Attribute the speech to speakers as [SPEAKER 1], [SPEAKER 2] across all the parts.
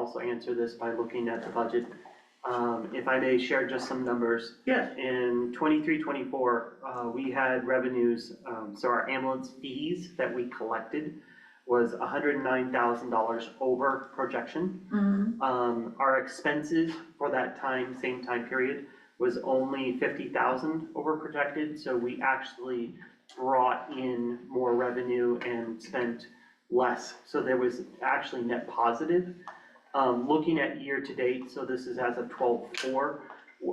[SPEAKER 1] also answer this by looking at the budget. Um, if I may share just some numbers.
[SPEAKER 2] Yeah.
[SPEAKER 1] In twenty-three, twenty-four, uh, we had revenues, um, so our ambulance fees that we collected was hundred and nine thousand dollars over projection.
[SPEAKER 2] Mhm.
[SPEAKER 1] Um, our expenses for that time, same time period, was only fifty thousand over projected, so we actually brought in more revenue and spent less, so there was actually net positive. Um, looking at year to date, so this is as of twelve four,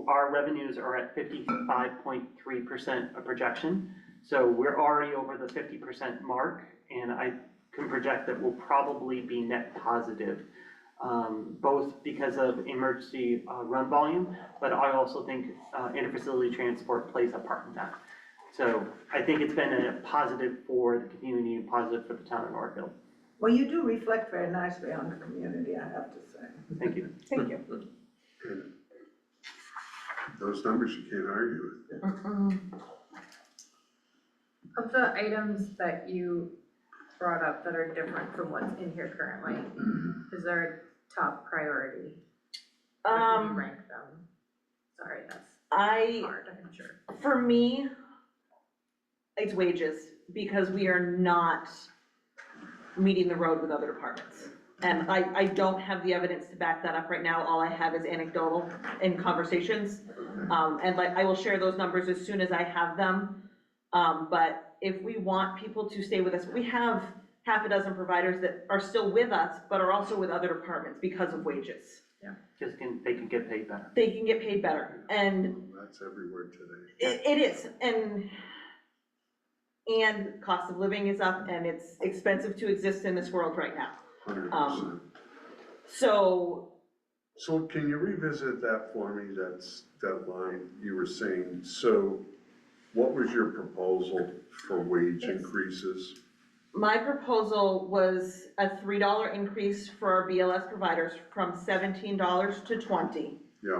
[SPEAKER 1] our revenues are at fifty-five point three percent of projection. So we're already over the fifty percent mark, and I can project that we'll probably be net positive um, both because of emergency uh, run volume, but I also think uh, interfacility transport plays a part in that. So I think it's been a positive for the community and positive for the town of Northfield.
[SPEAKER 2] Well, you do reflect very nicely on the community, I have to say.
[SPEAKER 1] Thank you.
[SPEAKER 3] Thank you.
[SPEAKER 4] Those numbers you can't argue with.
[SPEAKER 5] Of the items that you brought up that are different from what's in here currently, is there a top priority? Or can you
[SPEAKER 3] Um,
[SPEAKER 5] rank them? Sorry, that's
[SPEAKER 3] I,
[SPEAKER 5] hard, I'm sure.
[SPEAKER 3] for me, it's wages, because we are not meeting the road with other departments. And I, I don't have the evidence to back that up right now, all I have is anecdotal and conversations. Um, and like, I will share those numbers as soon as I have them. Um, but if we want people to stay with us, we have half a dozen providers that are still with us, but are also with other departments because of wages.
[SPEAKER 1] Just can, they can get paid better.
[SPEAKER 3] They can get paid better, and
[SPEAKER 4] That's everywhere today.
[SPEAKER 3] It, it is, and, and cost of living is up, and it's expensive to exist in this world right now.
[SPEAKER 4] Hundred percent.
[SPEAKER 3] Um, So,
[SPEAKER 4] So can you revisit that for me, that's, that line you were saying? So what was your proposal for wage
[SPEAKER 3] Yes.
[SPEAKER 4] increases?
[SPEAKER 3] my proposal was a three dollar increase for our BLS providers from seventeen dollars to twenty.
[SPEAKER 4] Yeah,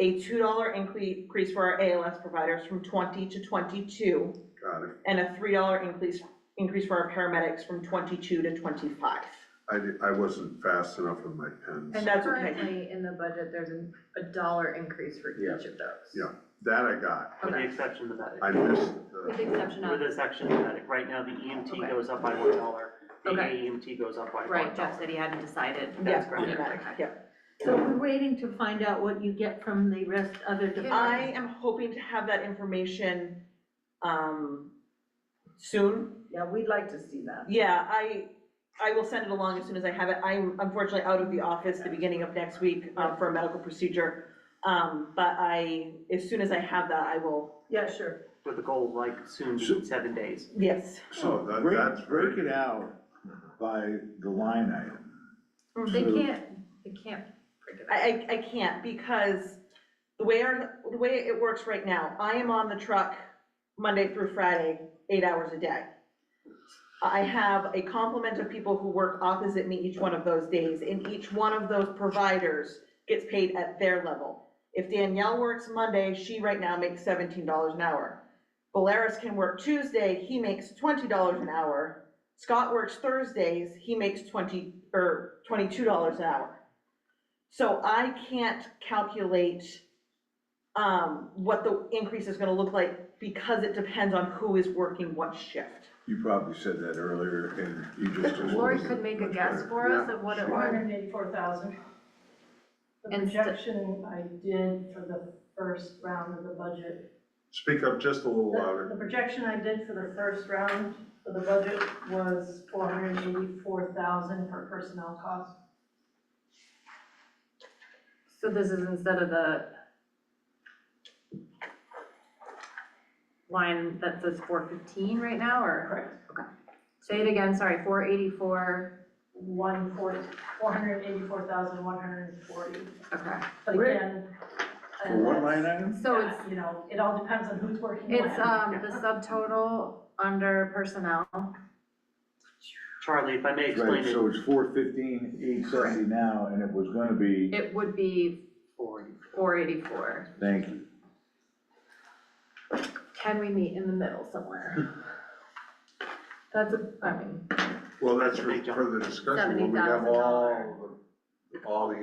[SPEAKER 3] A two dollar increase for our ALS providers from twenty to twenty-two,
[SPEAKER 4] got it.
[SPEAKER 3] and a three dollar increase, increase for our paramedics from twenty-two to twenty-five.
[SPEAKER 4] I, di- I wasn't fast enough with my
[SPEAKER 5] And
[SPEAKER 4] pens.
[SPEAKER 3] that's okay.
[SPEAKER 5] currently in the budget, there's an- a dollar increase for
[SPEAKER 6] Yeah.
[SPEAKER 5] each of those.
[SPEAKER 4] Yeah. That I got.
[SPEAKER 1] With the
[SPEAKER 5] Okay.
[SPEAKER 1] exception of that,
[SPEAKER 4] I missed
[SPEAKER 5] With
[SPEAKER 4] the,
[SPEAKER 5] the exception
[SPEAKER 1] with
[SPEAKER 5] of,
[SPEAKER 1] the exception of that, right now the EMT
[SPEAKER 5] Okay.
[SPEAKER 1] goes up by one dollar, the
[SPEAKER 5] Okay.
[SPEAKER 1] AEMT goes up by one dollar.
[SPEAKER 5] right, Jeff said he hadn't decided.
[SPEAKER 3] Yeah,
[SPEAKER 1] That's correct.
[SPEAKER 3] paramedic, yeah.
[SPEAKER 7] So we're waiting to find out what you get from the rest other
[SPEAKER 3] I
[SPEAKER 7] departments.
[SPEAKER 3] am hoping to have that information, um, soon.
[SPEAKER 2] Yeah, we'd like to see that.
[SPEAKER 3] Yeah, I, I will send it along as soon as I have it. I'm unfortunately out of the office the beginning of next week, uh, for a medical procedure. Um, but I, as soon as I have that, I will,
[SPEAKER 2] Yeah, sure.
[SPEAKER 1] With the goal of, like soon being seven days.
[SPEAKER 3] yes.
[SPEAKER 4] so that,
[SPEAKER 6] Break-
[SPEAKER 4] that's very.
[SPEAKER 6] Break it out by the line item.
[SPEAKER 5] They
[SPEAKER 6] So-
[SPEAKER 5] can't, they can't break it up.
[SPEAKER 3] I, I, I can't because the way our, the way it works right now, I am on the truck Monday through Friday, eight hours a day. I have a complement of people who work opposite me each one of those days, and each one of those providers gets paid at their level. If Danielle works Monday, she right now makes seventeen dollars an hour. Valeris can work Tuesday, he makes twenty dollars an hour. Scott works Thursdays, he makes twenty, or twenty-two dollars an hour. So I can't calculate, um, what the increase is gonna look like because it depends on who is working what shift.
[SPEAKER 6] You probably said that earlier and you just.
[SPEAKER 5] Lori could make a guess for us of what it
[SPEAKER 8] Four
[SPEAKER 5] was.
[SPEAKER 8] hundred and eighty-four thousand. The
[SPEAKER 5] And st-
[SPEAKER 8] projection I did for the first round of the budget.
[SPEAKER 4] Speak up just a little
[SPEAKER 8] The,
[SPEAKER 4] louder.
[SPEAKER 8] the projection I did for the first round for the budget was four hundred and eighty-four thousand for personnel costs.
[SPEAKER 5] So this is instead of the line that says four fifteen right now, or?
[SPEAKER 8] Correct.
[SPEAKER 5] Say it again, sorry, four eighty-four,
[SPEAKER 8] One four, four hundred and eighty-four thousand, one hundred and forty.
[SPEAKER 5] okay.
[SPEAKER 8] But
[SPEAKER 6] Where-
[SPEAKER 8] again. uh,
[SPEAKER 6] For one line
[SPEAKER 8] that's-
[SPEAKER 6] item?
[SPEAKER 5] So
[SPEAKER 8] yeah,
[SPEAKER 5] it's,
[SPEAKER 8] You know, it all depends on who's working when.
[SPEAKER 5] it's, um, the subtotal under personnel,
[SPEAKER 1] Charlie, if I may explain
[SPEAKER 6] Right,
[SPEAKER 1] it,
[SPEAKER 6] so it's four fifteen, eight seventy now, and it was gonna be,
[SPEAKER 5] it would be
[SPEAKER 1] for you.
[SPEAKER 5] four eighty-four.
[SPEAKER 6] thank you.
[SPEAKER 5] Can we meet in the middle somewhere? That's a, I mean,
[SPEAKER 4] Well, that's for
[SPEAKER 1] Big jump.
[SPEAKER 4] further discussion when we have all
[SPEAKER 5] $70,000.
[SPEAKER 4] the all the